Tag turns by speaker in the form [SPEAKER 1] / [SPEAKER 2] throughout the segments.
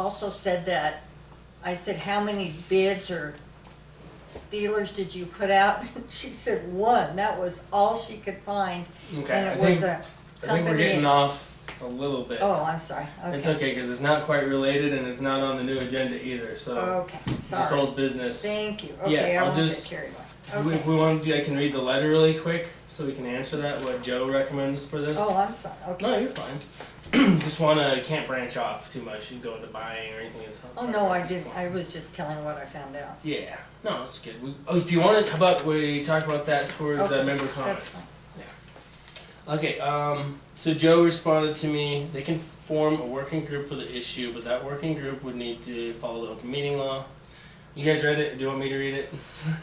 [SPEAKER 1] also said that, I said, how many bids or feelers did you put out? She said, one, that was all she could find,
[SPEAKER 2] Okay,
[SPEAKER 1] and
[SPEAKER 2] I
[SPEAKER 1] it was
[SPEAKER 2] think, I
[SPEAKER 1] a
[SPEAKER 2] think we're
[SPEAKER 1] company.
[SPEAKER 2] getting
[SPEAKER 1] in-
[SPEAKER 2] off a little bit.
[SPEAKER 1] Oh, I'm sorry,
[SPEAKER 2] It's
[SPEAKER 1] okay,
[SPEAKER 2] okay, cause it's not quite related and it's not on the new agenda either, so
[SPEAKER 1] okay,
[SPEAKER 2] it's just
[SPEAKER 1] Oh, sorry,
[SPEAKER 2] old business.
[SPEAKER 1] thank you,
[SPEAKER 2] Yeah,
[SPEAKER 1] okay, I
[SPEAKER 2] I'll
[SPEAKER 1] won't get
[SPEAKER 2] just-
[SPEAKER 1] carried
[SPEAKER 2] If we-
[SPEAKER 1] away,
[SPEAKER 2] If
[SPEAKER 1] okay.
[SPEAKER 2] we want, to, I can read the letter really quick, so we can answer that, what Joe recommends for this.
[SPEAKER 1] Oh, I'm sorry,
[SPEAKER 2] No,
[SPEAKER 1] okay.
[SPEAKER 2] you're fine. Just wanna, can't branch off too much and go into buying or anything. It's not-
[SPEAKER 1] Oh, no, I didn't, I was just telling what I found out.
[SPEAKER 2] Yeah, no, it's good. We, oh, if you want to, how about we talk about that towards uh,
[SPEAKER 1] Okay,
[SPEAKER 2] member
[SPEAKER 1] that's
[SPEAKER 2] comments?
[SPEAKER 1] fine.
[SPEAKER 2] Okay, um, so Joe responded to me, they can form a working group for the issue, but that working group would need to follow the open meeting law. You guys read it? Do you want me to read it?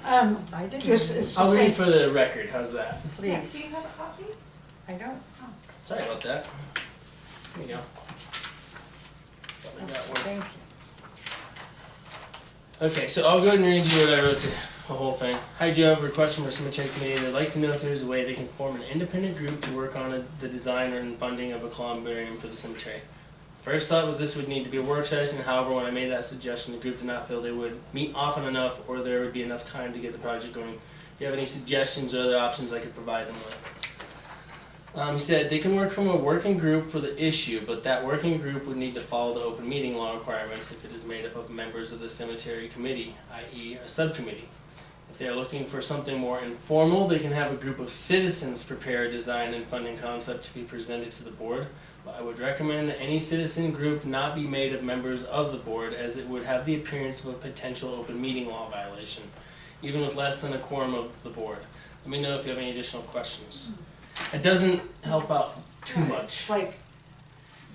[SPEAKER 3] Um,
[SPEAKER 1] I didn't,
[SPEAKER 3] just, it's the
[SPEAKER 2] I'll read
[SPEAKER 3] same,
[SPEAKER 2] for the record. How's that?
[SPEAKER 4] Yeah,
[SPEAKER 1] please,
[SPEAKER 4] do you have a copy? Oh.
[SPEAKER 1] I don't,
[SPEAKER 2] Sorry about that. Here you go. Probably got one.
[SPEAKER 1] thank you.
[SPEAKER 2] Okay, so I'll go ahead and read you what I wrote to the whole thing. Hi Joe, I have a request from our cemetery committee. They'd like to know if there's a way they can form an independent group to work on a, the design and funding of a columbarium for the cemetery. First thought was this would need to be a work session. However, when I made that suggestion, the group did not feel they would meet often enough or there would be enough time to get the project going. Do you have any suggestions or other options I could provide them with? Um, he said they can work from a working group for the issue, but that working group would need to follow the open meeting law requirements if it is made up of members of the cemetery committee, i.e., a subcommittee. If they are looking for something more informal, they can have a group of citizens prepare a design and funding concept to be presented to the board. But I would recommend that any citizen group not be made of members of the board, as it would have the appearance of a potential open meeting law violation, even with less than a quorum of the board. Let me know if you have any additional questions. It doesn't help out too
[SPEAKER 3] it's
[SPEAKER 2] much.
[SPEAKER 3] like,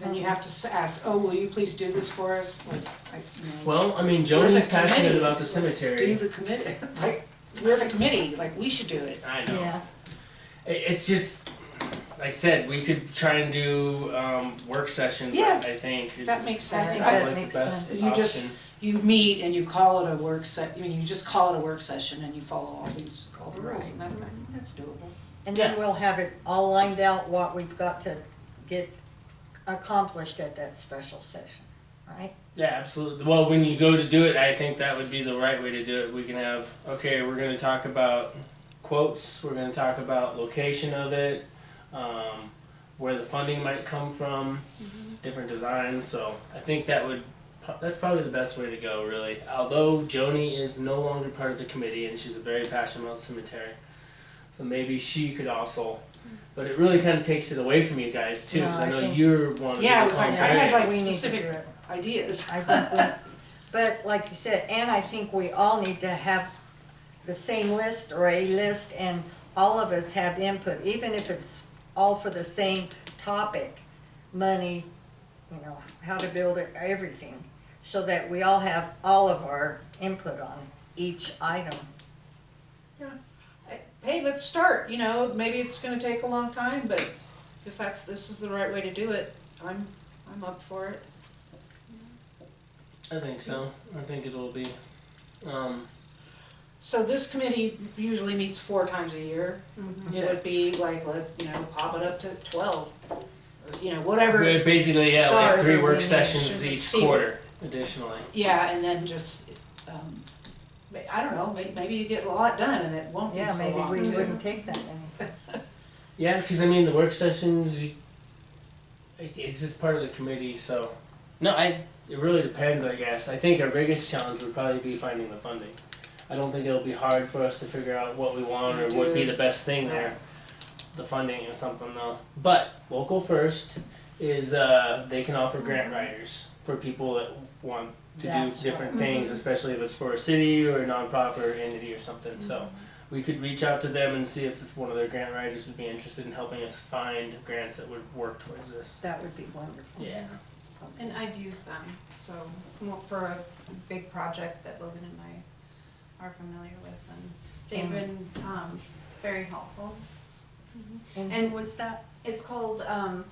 [SPEAKER 3] then you have to s- ask, oh, will you please do this for us? Like, I, you know,
[SPEAKER 2] Well, I mean,
[SPEAKER 3] we're the
[SPEAKER 2] Joni's passionate
[SPEAKER 3] committee.
[SPEAKER 2] about the
[SPEAKER 3] Let's Do
[SPEAKER 2] cemetery.
[SPEAKER 3] the committee, like, we're the committee, like, we should do it.
[SPEAKER 2] I know.
[SPEAKER 1] Yeah,
[SPEAKER 2] I- It's just, like I said, we could try and do um, work sessions.
[SPEAKER 3] Yeah.
[SPEAKER 2] I think
[SPEAKER 3] That makes
[SPEAKER 1] I
[SPEAKER 3] sense.
[SPEAKER 1] think
[SPEAKER 3] I-
[SPEAKER 1] that
[SPEAKER 2] Sounds like the
[SPEAKER 1] makes
[SPEAKER 2] best
[SPEAKER 1] sense.
[SPEAKER 3] You just-
[SPEAKER 2] option.
[SPEAKER 3] You meet and you call it a work se, I mean, you just call it a work session and you follow all these, all the rules, and that, that's doable.
[SPEAKER 1] and then we'll have it all lined out, what we've got to get accomplished at that special session, right?
[SPEAKER 2] Yeah, absolutely. Well, when you go to do it, I think that would be the right way to do it. We can have okay, we're going to talk about quotes. We're going to talk about location of it, um, where the funding might come from,
[SPEAKER 3] Mm-hmm.
[SPEAKER 2] different designs. So I think that would that's probably the best way to go, really. Although Joni is no longer part of the committee and she's very passionate about cemetery, so maybe she could also.
[SPEAKER 3] Mm.
[SPEAKER 2] But it really kind of takes it away from you guys too, because
[SPEAKER 1] No,
[SPEAKER 2] I
[SPEAKER 1] I
[SPEAKER 2] know
[SPEAKER 1] think-
[SPEAKER 2] you're one of
[SPEAKER 3] Yeah, I
[SPEAKER 2] the
[SPEAKER 3] was like, I
[SPEAKER 2] contrarians.
[SPEAKER 3] had, like,
[SPEAKER 1] We need to
[SPEAKER 3] specific-
[SPEAKER 1] do it.
[SPEAKER 3] Ideas.
[SPEAKER 1] I think we, but like you said, and I think we all need to have the same list or a list and all of us have input, even if it's all for the same topic, money, you know, how to build it, everything, so that we all have all of our input on each item.
[SPEAKER 4] Hey, let's start, you know, maybe it's gonna take a long time, but if that's, this is the right way to do it, I'm, I'm up for it.
[SPEAKER 2] I think so. I think it'll be. Um,
[SPEAKER 4] So this committee usually meets four times a year.
[SPEAKER 1] Mm-hmm.
[SPEAKER 4] It would be like, let, you know, pop it up to twelve, or, you know, whatever,
[SPEAKER 2] we're basically, yeah, we have three
[SPEAKER 4] Start
[SPEAKER 2] work
[SPEAKER 4] the
[SPEAKER 2] sessions
[SPEAKER 4] sessions
[SPEAKER 2] each
[SPEAKER 4] and see-
[SPEAKER 2] quarter, additionally.
[SPEAKER 4] yeah, and then just, um, ma- I don't know, may, maybe you get a lot done and it won't be
[SPEAKER 1] Yeah,
[SPEAKER 4] so
[SPEAKER 1] maybe
[SPEAKER 4] long.
[SPEAKER 1] we
[SPEAKER 4] too.
[SPEAKER 1] wouldn't take that many.
[SPEAKER 2] Yeah, because I mean, the work sessions, you, it, it's just part of the committee, so. No, I. It really depends, I guess. I think our biggest challenge would probably be finding the funding. I don't think it'll be hard for us to figure out what we want or what would be the best thing there. The funding is something though. But local first is uh, they can offer grant writers for people that want to
[SPEAKER 1] Mm-hmm. That's
[SPEAKER 2] do different
[SPEAKER 1] right. Mm-hmm.
[SPEAKER 2] things, especially if it's for a city or a nonprofit or entity or something. So we could reach out to them and see if it's one of their grant writers would be interested in helping us find grants that would work towards this.
[SPEAKER 1] That would be wonderful.
[SPEAKER 2] Yeah.
[SPEAKER 5] And I've used them, so, well, for a big project that Logan and I are familiar with, and they've been, um, very helpful.
[SPEAKER 1] And
[SPEAKER 5] And-
[SPEAKER 1] who was that?
[SPEAKER 5] It's called, um,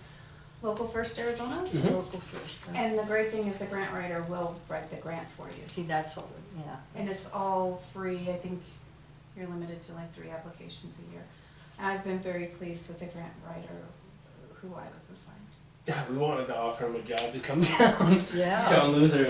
[SPEAKER 5] Local First Arizona,
[SPEAKER 2] Mhm.
[SPEAKER 1] Local first. huh?
[SPEAKER 5] and the great thing is the grant writer will write the grant for you.
[SPEAKER 1] See, that's what, we yeah.
[SPEAKER 5] And it's all free, I think you're limited to like three applications a year. And I've been very pleased with the grant writer who I was assigned.
[SPEAKER 2] We wanted to offer him a job to come down.
[SPEAKER 1] Yeah.
[SPEAKER 2] John Luther